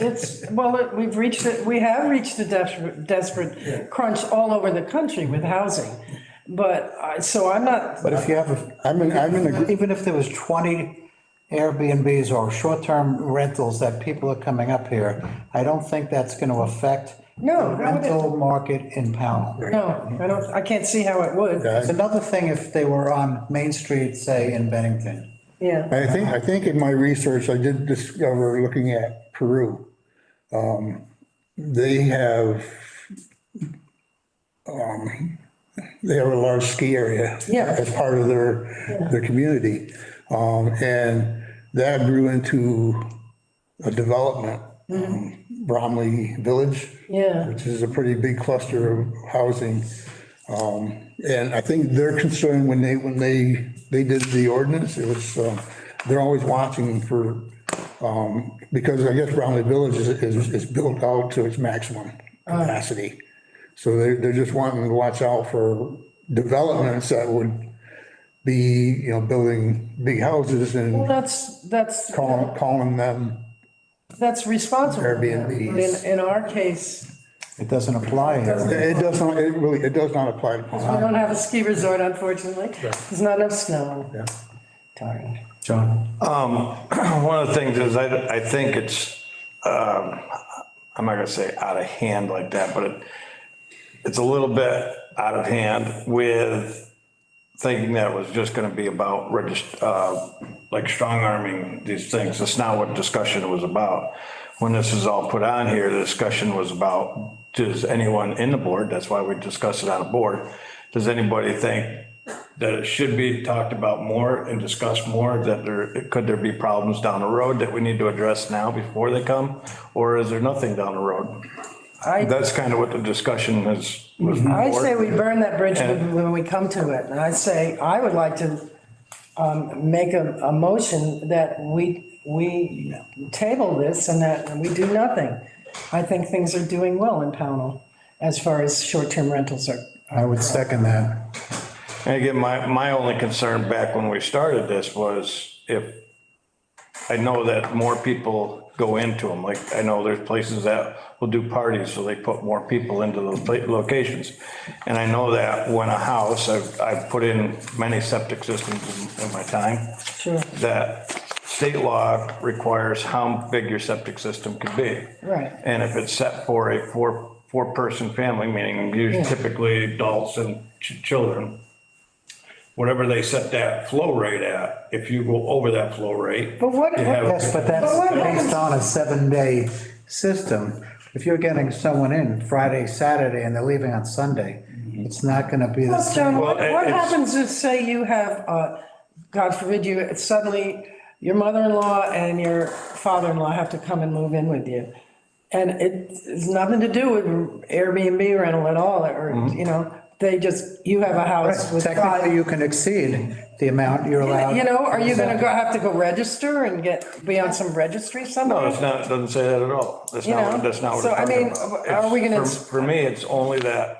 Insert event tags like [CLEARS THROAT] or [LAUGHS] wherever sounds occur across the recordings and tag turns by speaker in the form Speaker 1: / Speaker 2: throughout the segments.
Speaker 1: it's, well, it- we've reached it, we have reached a desperate, desperate crunch all over the country with housing. But I, so I'm not,
Speaker 2: But if you have, a- I'm in, I'm in, a- even if there was 20 Airbnbs or short-term rentals that people are coming up here, I don't think that's going to affect
Speaker 1: No,
Speaker 2: the
Speaker 1: that wouldn't.
Speaker 2: rental market in Pownell.
Speaker 1: no, I don't, I can't see how it would,
Speaker 2: It's another thing if they were on Main Street, say, in Bennington.
Speaker 1: yeah.
Speaker 3: I think, I think in my research, I did discover, looking at Peru, um, they have, um, they have a large ski area.
Speaker 1: Yeah.
Speaker 3: As part of their, their community. Um, And that grew into a development, um, Bromley Village.
Speaker 1: Yeah.
Speaker 3: Which is a pretty big cluster of housing. Um, And I think their concern when they, when they, they did the ordinance, it was, um, they're always watching for, um, because I guess Bromley Village is, is, is built out to its maximum capacity. So they're, they're just wanting to watch out for developments that would be, you know, building big houses and
Speaker 1: That's, that's,
Speaker 3: calling, calling them
Speaker 1: that's responsible.
Speaker 3: Airbnbs.
Speaker 1: In, in our case,
Speaker 2: It doesn't apply here.
Speaker 3: It does not, it really, it does not apply to
Speaker 1: we
Speaker 3: Palm.
Speaker 1: don't have a ski resort unfortunately. There's not enough snow. Darn.
Speaker 2: John,
Speaker 4: Um, [CLEARS THROAT] One of the things is I, I think it's, um, I'm not gonna say out of hand like that, but it, it's a little bit out of hand with thinking that it was just gonna be about regist, uh, like strong arming these things. That's not what discussion was about. When this is all put on here, the discussion was about, does anyone in the board, that's why we discussed it on a board, does anybody think that it should be talked about more and discussed more, that there, could there be problems down the road that we need to address now before they come? Or is there nothing down the road?
Speaker 1: I,
Speaker 4: That's kind of what the discussion is, was.
Speaker 1: I say we burn that bridge when when we come to it. And I say, I would like to, um, make a, a motion that we, we table this and that we do nothing. I think things are doing well in Pownell as far as short-term rentals are.
Speaker 2: I would second that.
Speaker 4: And again, my, my only concern back when we started this was if, I know that more people go into them, like, I know there's places that will do parties, so they put more people into those pla- locations. And I know that when a house, I've, I've put in many septic systems in- in my time.
Speaker 1: Sure.
Speaker 4: That state law requires how big your septic system could be.
Speaker 1: Right.
Speaker 4: And if it's set for a four, four-person family, meaning usually
Speaker 1: Yeah.
Speaker 4: typically adults and ch- children, whatever they set that flow rate at, if you go over that flow rate.
Speaker 1: But what-
Speaker 4: you have-
Speaker 2: Yes, but that's
Speaker 1: But what happens-
Speaker 2: based on a seven-day system. If you're getting someone in Friday, Saturday, and they're leaving on Sunday, it's not going to be the
Speaker 1: Well,
Speaker 2: same.
Speaker 1: John, what,
Speaker 4: Well, it-
Speaker 1: what
Speaker 4: it's-
Speaker 1: happens if, say, you have, uh, God forbid you, suddenly your mother-in-law and your father-in-law have to come and move in with you? And it has nothing to do with Airbnb rental at all, or,
Speaker 4: Mm-hmm.
Speaker 1: you know, they just, you have a house with five.
Speaker 2: Technically, you can exceed the amount you're allowed.
Speaker 1: You know, are you gonna go, have to go register and get, be on some registry somewhere?
Speaker 4: No, it's not, it doesn't say that at all. That's
Speaker 1: You
Speaker 4: not,
Speaker 1: know?
Speaker 4: what- that's not what
Speaker 1: So,
Speaker 4: it's
Speaker 1: I
Speaker 4: talking
Speaker 1: mean,
Speaker 4: about.
Speaker 1: are we
Speaker 4: It's-
Speaker 1: gonna-
Speaker 4: For for me, it's only that,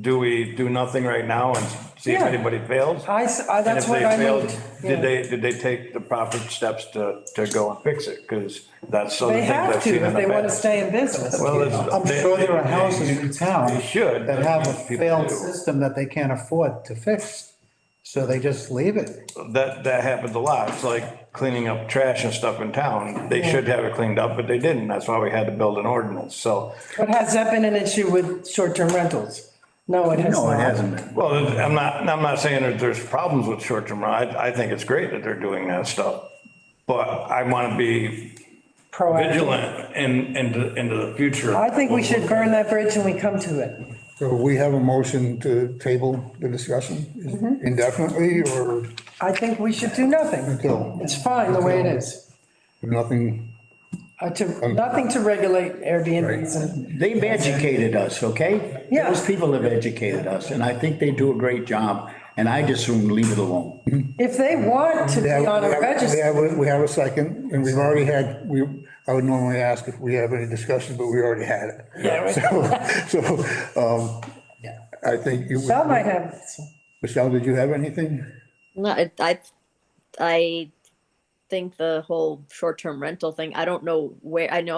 Speaker 4: do we do nothing right now and see if
Speaker 1: Yeah.
Speaker 4: anybody fails?
Speaker 1: I s- I- that's what I
Speaker 4: And if they failed,
Speaker 1: mean,
Speaker 4: did
Speaker 1: yeah.
Speaker 4: they, did they take the proper steps to, to go and fix it? Because that's some of
Speaker 1: They
Speaker 4: the things
Speaker 1: have
Speaker 4: I've seen
Speaker 1: to if
Speaker 4: in the
Speaker 1: they wanna
Speaker 4: past.
Speaker 1: stay in business.
Speaker 4: Well, it's-
Speaker 2: I'm
Speaker 4: they-
Speaker 2: sure there are
Speaker 4: they-
Speaker 2: houses in town.
Speaker 4: they should,
Speaker 2: That
Speaker 4: but
Speaker 2: have a
Speaker 4: people
Speaker 2: failed
Speaker 4: do.
Speaker 2: system that they can't afford to fix, so they just leave it.
Speaker 4: That, that happens a lot. It's like cleaning up trash and stuff in town. They should have it cleaned up, but they didn't. That's why we had to build an ordinance, so.
Speaker 1: But has that been an issue with short-term rentals? No, it has not.
Speaker 5: No, it hasn't been.
Speaker 4: Well, I'm not, I'm not saying that there's problems with short-term rental. I, I think it's great that they're doing that stuff. But I want to be
Speaker 1: Proactive.
Speaker 4: vigilant in, into, into the future.
Speaker 1: I think we should burn that bridge when we come to it.
Speaker 3: So we have a motion to table the discussion indefinitely or
Speaker 1: I think we should do nothing.
Speaker 3: until
Speaker 1: It's fine the way it is.
Speaker 3: nothing.
Speaker 1: Uh,
Speaker 3: Um,
Speaker 1: to, nothing to regulate Airbnbs and,
Speaker 5: They've educated us, okay?
Speaker 1: Yeah.
Speaker 5: Those people have educated us, and I think they do a great job, and I just soon leave it alone.
Speaker 1: if they want to be on a
Speaker 3: We
Speaker 1: register,
Speaker 3: have, a- we have a second and we've already had, we, I would normally ask if we have any discussion, but we already had it. [LAUGHS]
Speaker 1: Yeah, right.
Speaker 3: So, so, um, I think you,
Speaker 1: Michelle might have,
Speaker 3: Michelle, did you have anything?
Speaker 6: No, I, I, I think the whole short-term rental thing, I don't know where, I know